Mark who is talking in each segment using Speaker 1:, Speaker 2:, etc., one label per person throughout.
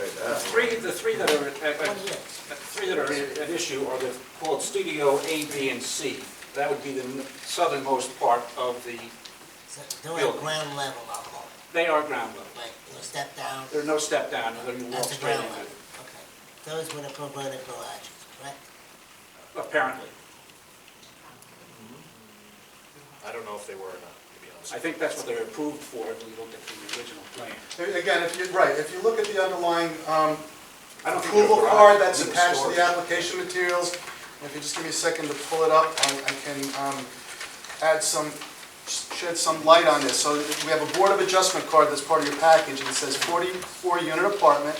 Speaker 1: uh,
Speaker 2: The three, the three that are, at- at- the three that are at issue are the called Studio A, B, and C. That would be the n- southernmost part of the,
Speaker 3: So They're at
Speaker 2: Building.
Speaker 3: ground level of all,
Speaker 2: they are ground level.
Speaker 3: like, you know, step down,
Speaker 2: There are no step down, whether you walk
Speaker 3: that's a
Speaker 2: straight
Speaker 3: ground
Speaker 2: into
Speaker 3: level,
Speaker 2: it,
Speaker 3: okay. Those were the converted garages, correct?
Speaker 2: apparently.
Speaker 1: I don't know if they were or not, to be honest.
Speaker 2: I think that's what they're approved for, if we looked at the original plan.
Speaker 4: Again, if you, right, if you look at the underlying um,
Speaker 2: I don't think
Speaker 4: approval
Speaker 2: they're
Speaker 4: card
Speaker 2: garage,
Speaker 4: that's
Speaker 2: they're
Speaker 4: attached to
Speaker 2: storage.
Speaker 4: the application materials, if you just give me a second to pull it up, I I can um, add some, shed some light on this. So we have a Board of Adjustment card that's part of your package, and it says 44-unit apartment,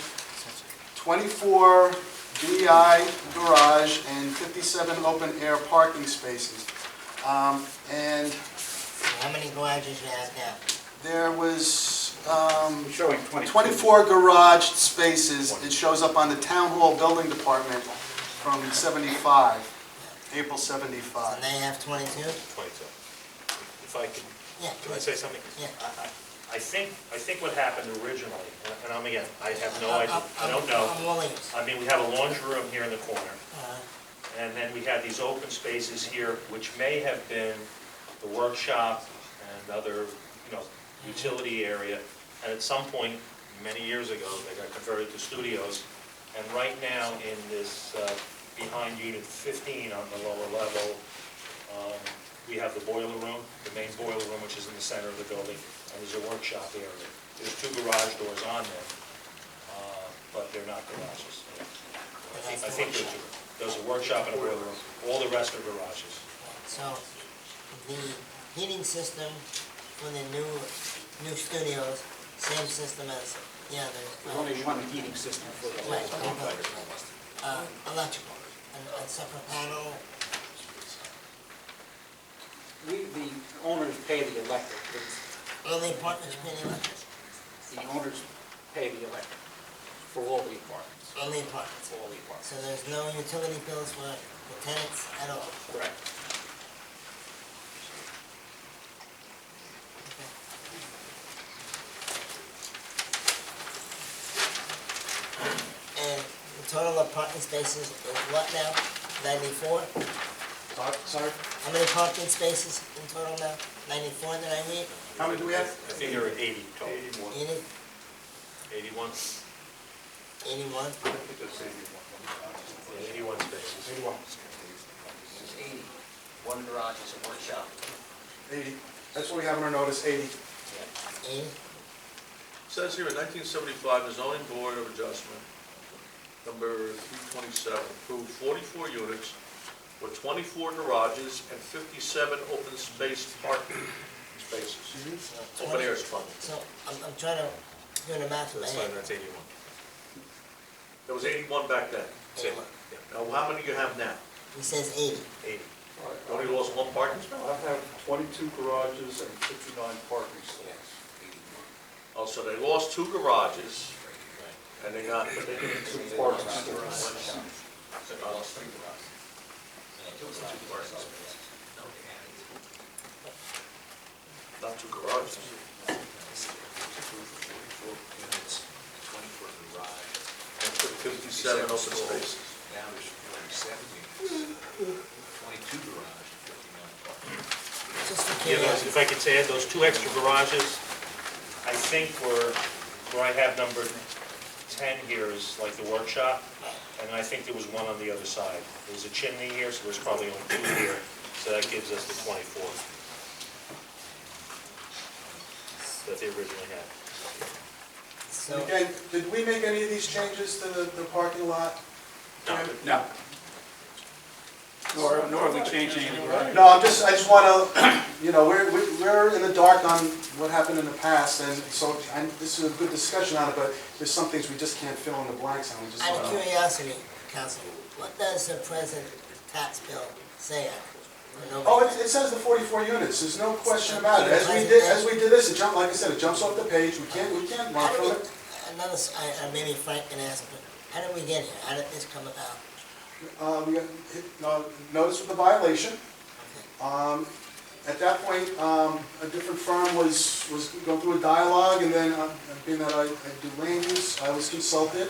Speaker 4: 24 DI garage, and 57 open-air parking spaces. Um, And
Speaker 3: So How many garages you have now?
Speaker 4: there was, um,
Speaker 2: I'm showing 22.
Speaker 4: 24 garage spaces, it shows up on the Town Hall Building Department from 75, April
Speaker 3: So
Speaker 4: 75.
Speaker 3: they have twenty-two?
Speaker 1: Twenty-two. If I could,
Speaker 3: Yeah,
Speaker 1: can I say something?
Speaker 3: Yeah.
Speaker 1: I- I- I think, I think what happened originally, and- and I'm again, I have no
Speaker 3: I'm-
Speaker 1: idea,
Speaker 3: I'm-
Speaker 1: I don't
Speaker 3: I'm
Speaker 1: know.
Speaker 3: all ears.
Speaker 1: I mean, we have a laundry room here in the corner,
Speaker 3: Uh,
Speaker 1: and then we had these open spaces here, which may have been the workshop and other, you know, utility area. And at some point, many years ago, they got converted to studios. And right now, in this, uh, behind unit 15 on the lower level, um, we have the boiler room, the main boiler room, which is in the center of the building, and there's a workshop area. There's two garage doors on there, uh, but they're not garages. I think- I think there's two. There's a workshop and a boiler room, all the rest are garages.
Speaker 3: So the heating system for the new, new studios, same system as the
Speaker 2: There's
Speaker 3: others?
Speaker 2: only one heating system for the
Speaker 3: Right,
Speaker 2: whole.
Speaker 3: right, right. Uh, electrical, and a separate panel,
Speaker 2: We, the owners pay the electric, It's-
Speaker 3: all the apartments being electric,
Speaker 2: the owners pay the electric for all the apartments,
Speaker 3: all the apartments.
Speaker 2: for all the apartments.
Speaker 3: So there's no utility bills for the tenants at all?
Speaker 2: Correct.
Speaker 3: And the total of parking spaces is what now? Ninety-four?
Speaker 4: Sorry?
Speaker 3: How many parking spaces in total now? Ninety-four that I read?
Speaker 4: How many do we have?
Speaker 1: I think there are 80 total.
Speaker 3: Eighty,
Speaker 1: 81?
Speaker 3: eighty-one?
Speaker 1: Yeah, 81 spaces.
Speaker 5: It's 80. One garage is a workshop.
Speaker 4: 80. That's what we have on our notice, 80.
Speaker 3: Eighty?
Speaker 6: Says here in 1975, the zoning board of adjustment, number 327, approved 44 units with 24 garages and 57 open space parking spaces.
Speaker 3: So
Speaker 6: Open
Speaker 3: 20
Speaker 6: air is fun.
Speaker 3: So I'm, I'm trying to do the math in my
Speaker 1: That's
Speaker 3: head.
Speaker 1: fine, that's 81.
Speaker 6: There was 81 back then.
Speaker 3: Eighty-one.
Speaker 6: Now, how many do you have now?
Speaker 3: He says eighty.
Speaker 1: 80.
Speaker 6: You Only lost one parking spot?
Speaker 7: I have 22 garages and 59 parking stalls.
Speaker 6: Oh, so they lost two garages and they got, but they didn't
Speaker 7: Two parking stalls.
Speaker 5: So they lost three garages. And two garages. No, they haven't.
Speaker 6: Not two garages. Fifty-seven open spaces.
Speaker 5: Now there's 47 units, 22 garage, 59 apartments.
Speaker 3: Just for
Speaker 1: Yeah, those-
Speaker 3: curiosity.
Speaker 1: if I could say, those two extra garages, I think were, where I have number 10 here is like the workshop, and I think there was one on the other side. There's a chimney here, so there's probably only two here, so that gives us the 24 that they originally had.
Speaker 3: So,
Speaker 4: Again, did we make any of these changes to the the parking lot?
Speaker 2: No. Nor, nor are we changing any of
Speaker 4: No, I'm just, I just want to, you know, we're, we- we're in the dark on what happened in the past, and so, and this is a good discussion on it, but there's some things we just can't fill in the blanks on, we just.
Speaker 3: out of curiosity, Councilman, what does the present tax bill say on it? Nobody-
Speaker 4: Oh, it, it says the forty-four units, there's no question about it, as we did, as we did this, it jumped, like I said, it jumps off the page, we can't, we can't run
Speaker 3: How
Speaker 4: from
Speaker 3: did
Speaker 4: it.
Speaker 3: it- Another, s- I, I maybe Frank can ask, but how did we get here? How did this come about?
Speaker 4: Uh, we got hit, uh, notice with the violation,
Speaker 3: Okay.
Speaker 4: um, at that point, um, a different firm was was going through a dialogue, and then, uh, being that I I do land use, I was consulted,